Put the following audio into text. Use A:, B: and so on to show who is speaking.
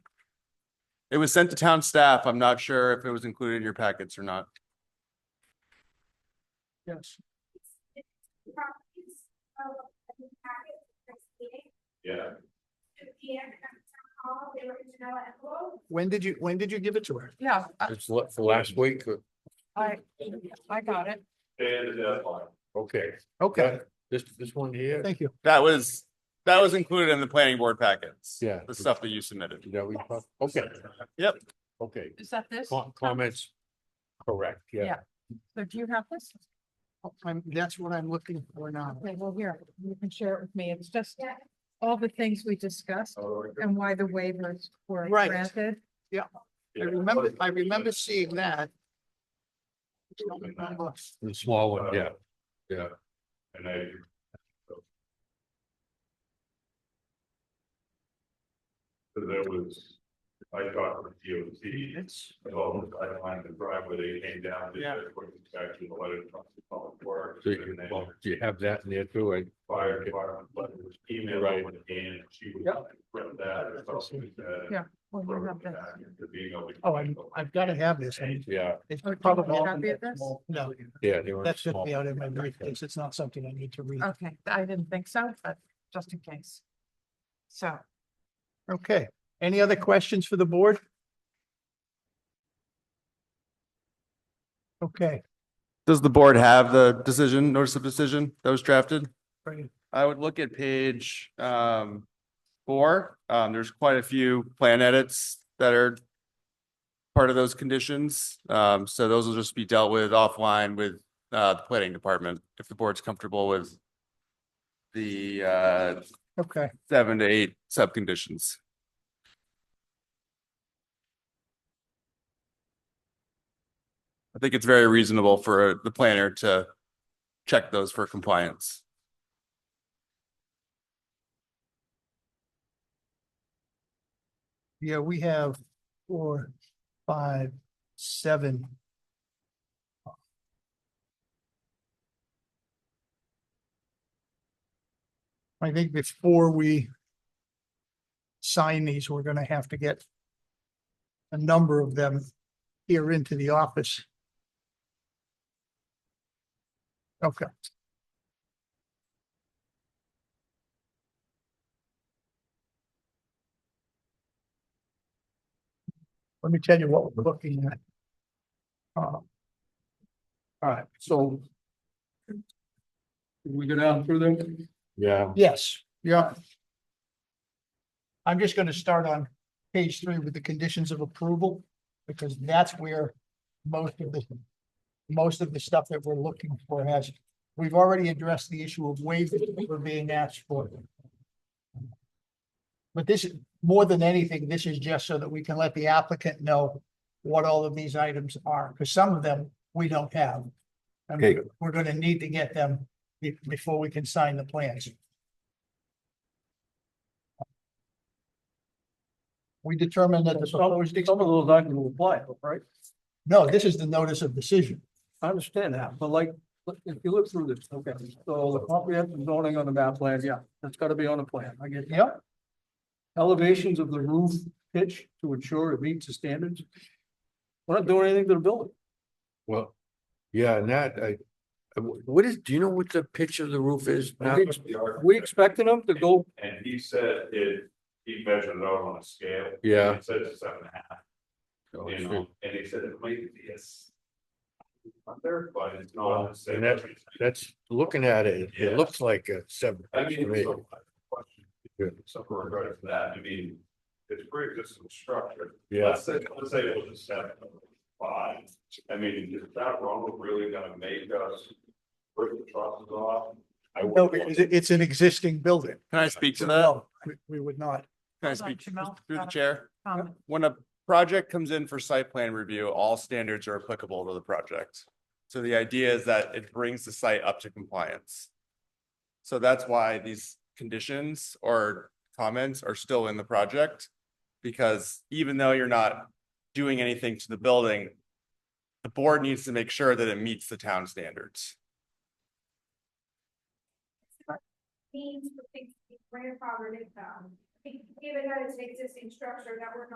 A: It was sent to town staff. I'm not sure if it was included in your packets or not.
B: Yes.
C: properties of the packet for this meeting.
D: Yeah.
C: Two P M at town hall, they were in Janella and Lowell.
B: When did you, when did you give it to her?
E: Yeah, I-
F: It's la- for last week, uh,
E: I, I got it.
D: Day of the deadline.
F: okay,
B: Okay,
F: this, this one here,
B: thank you.
A: That was, that was included in the planning board packets.
F: Yeah.
A: The stuff that you submitted.
F: that we, talked- okay.
A: Yep.
F: Okay,
E: Is that this?
F: Com- comments, correct, yeah,
E: Yeah. So do you have this?
B: I'm, that's what I'm looking for now.
E: Okay, well, here, you can share it with me. It's just
C: Yeah.
E: all the things we discussed
D: Oh,
E: and why the waivers were
B: Right.
E: granted.
B: I remember, I remember seeing that. I don't remember.
F: the small one, yeah.
D: And I, so there was, I talked with DOT about the pipeline, the driveway, they came down.
A: Yeah.
D: Back to the letter from the public works.
F: So you,
D: and then
F: well, do you have that in there too? I-
D: Fire department, letter was
F: Right.
D: emailed with and she was from that or something. uh,
E: Yeah, Well, you
D: from
E: have
D: the
E: the-
D: back to being able to-
B: Oh, I'm, I've got to have this. I-
F: Yeah,
B: It's
E: Oh, do you
B: probably.
E: want a copy of this?
B: No,
F: yeah. they were
B: that should
F: small.
B: be out of my briefcase. It's not something I need to read.
E: Okay, I didn't think so, but just in case. So,
B: Okay, any other questions for the board? Okay,
A: Does the board have the decision, notice of decision that was drafted?
B: bring it.
A: I would look at page um four. Um, there's quite a few plan edits that are part of those conditions. Um, so those will just be dealt with offline with uh the planning department if the board's comfortable with the uh
B: okay,
A: seven to eight subconditions. I think it's very reasonable for the planner to check those for compliance.
B: yeah, we have four, five, seven. I think before we sign these, we're gonna have to get a number of them here into the office. Okay. Let me tell you what we're looking at. Uh,
G: All right, so. Can We go down through them?
F: Yeah,
B: Yes, yeah. I'm just gonna start on page three with the conditions of approval, because that's where most of the. Most of the stuff that we're looking for has, we've already addressed the issue of waivers that were being asked for. But this, is more than anything, this is just so that we can let the applicant know what all of these items are, because some of them we don't have. And
F: Okay.
B: we're gonna need to get them be- before we can sign the plans. We determined that the proposed, ex-
G: Some of those I can apply, right?
B: no, this is the notice of decision.
G: I understand that, but like, look, if you look through this, okay, so the comprehensive zoning on the map plan, yeah, that's gotta be on the plan, I get. that.
B: Yep.
G: Elevations of the roof pitch to ensure it meets the standards. We're not doing anything to the building.
F: well, yeah, and that, I, I- what is, do you know what the pitch of the roof is now?
G: think-
D: The architect-
G: We expecting them to go,
D: And he said it, he measured it out on a scale.
F: Yeah.
D: He said it's seven and a half.
F: Oh,
D: You
F: shoot.
D: know, and he said it might be a s- Under, but it's
F: Well,
D: not. the same.
F: and That's, looking at it, it
D: Yeah.
F: looks like a seven.
D: I mean,
F: to me.
D: it's a question, something regarding that, I mean, it's pre-existing structure.
F: Yeah,
D: Let's say, let's say it was a seven, five, I mean, is that wrong, really gonna make us break the trusses off? I
B: No,
D: wouldn't
B: because it- it's an existing building.
A: Can I speak to
B: So
A: that?
B: no, we- We would not.
A: Can I
E: Hold on,
A: speak
E: Jamel,
A: through the
E: uh,
A: chair?
E: um,
A: When a project comes in for site plan review, all standards are applicable to the project. So the idea is that it brings the site up to compliance. So that's why these conditions or comments are still in the project. Because even though you're not doing anything to the building, the board needs to make sure that it meets the town standards.
C: Means for things to be grandfathered in, um, we gave it out as an existing structure that we're not